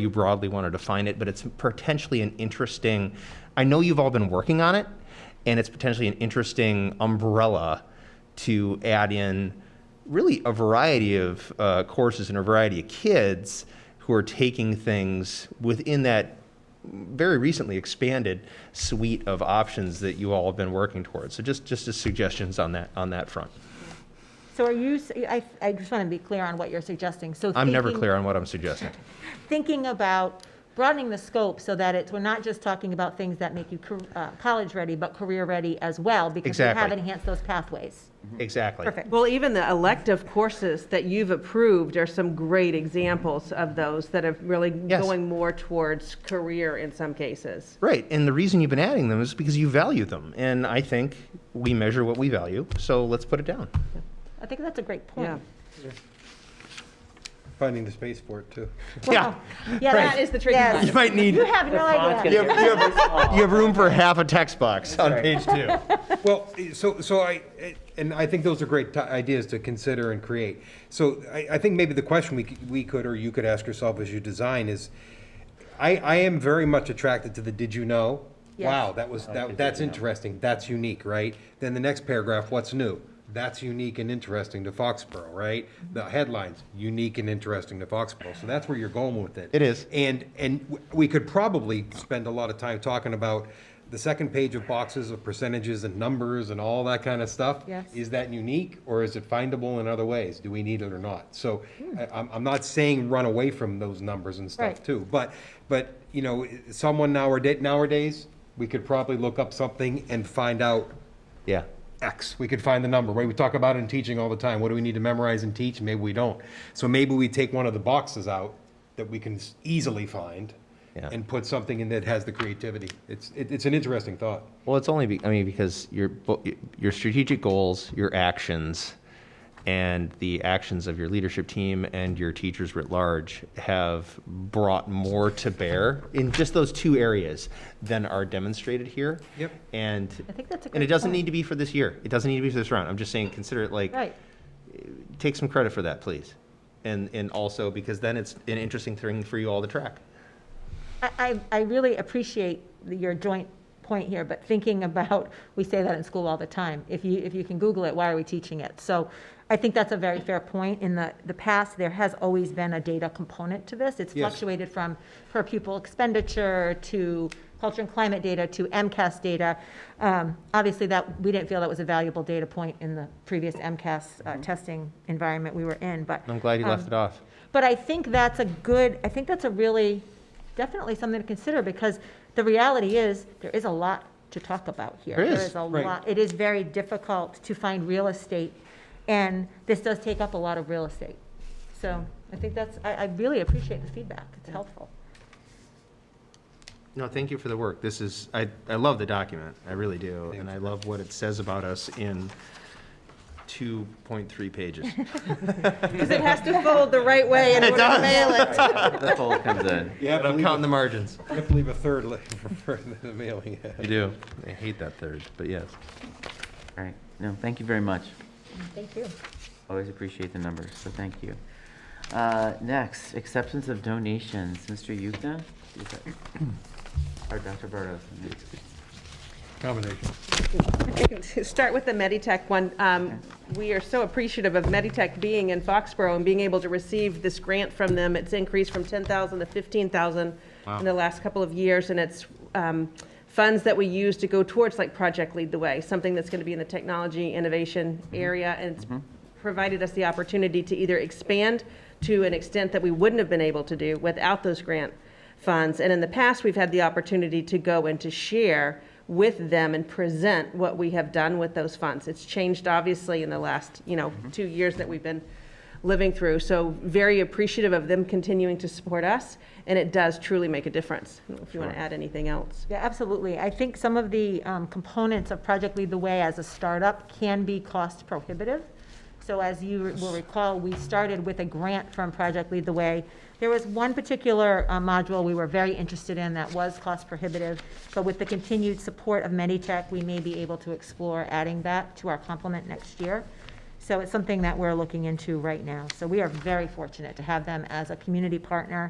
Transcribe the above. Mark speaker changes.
Speaker 1: you broadly want to define it, but it's potentially an interesting, I know you've all been working on it, and it's potentially an interesting umbrella to add in really a variety of uh, courses and a variety of kids who are taking things within that very recently expanded suite of options that you all have been working towards. So just, just as suggestions on that, on that front.
Speaker 2: So are you, s- I, I just want to be clear on what you're suggesting, so.
Speaker 1: I'm never
Speaker 2: thinking-
Speaker 1: clear on what I'm suggesting.
Speaker 2: Thinking about broadening the scope so that it's, we're not just talking about things that make you car- uh, college-ready, but career-ready as well, because we have
Speaker 1: Exactly.
Speaker 2: enhanced those pathways.
Speaker 1: Exactly.
Speaker 2: Perfect.
Speaker 3: Well, even the elective courses that you've approved are some great examples of those that are really
Speaker 1: Yes.
Speaker 3: going more towards career in some cases.
Speaker 1: Right, and the reason you've been adding them is because you value them, and I think we measure what we value, so let's put it down.
Speaker 2: I think that's a great
Speaker 3: Yeah.
Speaker 2: point.
Speaker 4: Finding the space for it, too.
Speaker 1: Yeah,
Speaker 2: Yeah,
Speaker 1: Right.
Speaker 3: That is the tricky
Speaker 2: yes.
Speaker 3: part.
Speaker 1: you might need,
Speaker 2: You
Speaker 1: you
Speaker 2: have no idea.
Speaker 1: have, you have- you have room for half a text box on page two.
Speaker 4: Well, eh, so, so I, eh, and I think those are great ti- ideas to consider and create. So I, I think maybe the question we, c- we could, or you could ask yourself as you design is, I, I am very much attracted to the did you know?
Speaker 2: Yes.
Speaker 4: Wow, that was, that, that's interesting, that's unique, right? Then the next paragraph, what's new? That's unique and interesting to Foxborough, right? The headlines, unique and interesting to Foxborough, so that's where you're going with it.
Speaker 1: It is.
Speaker 4: And, and w- we could probably spend a lot of time talking about the second page of boxes of percentages and numbers and all that kind of stuff.
Speaker 2: Yes.
Speaker 4: Is that unique or is it findable in other ways? Do we need it or not? So I, I'm, I'm not saying run away from those numbers and stuff
Speaker 2: Hmm. Right.
Speaker 4: too. But, but, you know, someone nowadays, nowadays, we could probably look up something and find out
Speaker 1: Yeah,
Speaker 4: X. We could find the number, right? We talk about it in teaching all the time. What do we need to memorize and teach? Maybe we don't. So maybe we take one of the boxes out that we can s- easily find
Speaker 1: Yeah.
Speaker 4: and put something in that has the creativity. It's, it, it's an interesting thought.
Speaker 1: well, it's only, be- I mean, because your, bo- your strategic goals, your actions, and the actions of your leadership team and your teachers writ large have brought more to bear in just those two areas than are demonstrated here.
Speaker 4: Yep.
Speaker 1: And
Speaker 2: I think that's a great
Speaker 1: And it doesn't
Speaker 2: point.
Speaker 1: need to be for this year. It doesn't need to be for this round. I'm just saying, consider it like,
Speaker 2: Oh. Right,
Speaker 1: take some credit for that, please. And, and also, because then it's an interesting thing for you all to track.
Speaker 2: I, I, I really appreciate the- your joint point here, but thinking about, we say that in school all the time, if you, if you can Google it, why are we teaching it? So I think that's a very fair point. In the, the past, there has always been a data component to this. It's
Speaker 4: Yes.
Speaker 2: fluctuated from per pupil expenditure to culture and climate data to MCAS data. Um, Obviously, that, we didn't feel that was a valuable data point in the previous MCAS uh, testing environment we were in, but.
Speaker 1: Mm-hmm. I'm glad you
Speaker 2: um,
Speaker 1: left it off.
Speaker 2: But I think that's a good, I think that's a really, definitely something to consider, because the reality is, there is a lot to talk about here.
Speaker 1: There is,
Speaker 2: a
Speaker 4: right.
Speaker 2: lot, it is very difficult to find real estate, and this does take up a lot of real estate. So I think that's, I, I really appreciate the feedback, it's helpful.
Speaker 1: No, thank you for the work. This is, I, I love the document. I really do. And I love what it says about us in 2.3 pages.
Speaker 3: Because it has to fold the right way in order to mail it.
Speaker 5: That's all it comes in.
Speaker 4: Yeah,
Speaker 1: But I'm counting the margins.
Speaker 4: I can't believe a third li- for the mailing.
Speaker 1: You do. I hate that third, but yes.
Speaker 5: All right, no, thank you very much.
Speaker 2: Thank you.
Speaker 5: Always appreciate the numbers, so thank you. Uh, Next, acceptance of donations. Mr. Yukna? Is that- Or Dr. Burdos?
Speaker 4: Combination.
Speaker 3: Start with the Meditech one. Um, We are so appreciative of Meditech being in Foxborough and being able to receive this grant from them. It's increased from 10,000 to 15,000 in the last couple of years, and it's um, funds that we use to go towards like Project Lead the Way, something that's going to be in the technology innovation area, and it's provided us the opportunity to either expand to an extent that we wouldn't have been able to do without those grant funds. And in the past, we've had the opportunity to go and to share with them and present what we have done with those funds. It's changed obviously in the last, you know, two years that we've been living through. So very appreciative of them continuing to support us, and it does truly make a difference. I don't know If you want to add anything else.
Speaker 2: Yeah, absolutely. I think some of the um, components of Project Lead the Way as a startup can be cost prohibitive. So as you will recall, we started with a grant from Project Lead the Way. There was one particular uh, module we were very interested in that was cost prohibitive, but with the continued support of Meditech, we may be able to explore adding that to our complement next year. So it's something that we're looking into right now. So we are very fortunate to have them as a community partner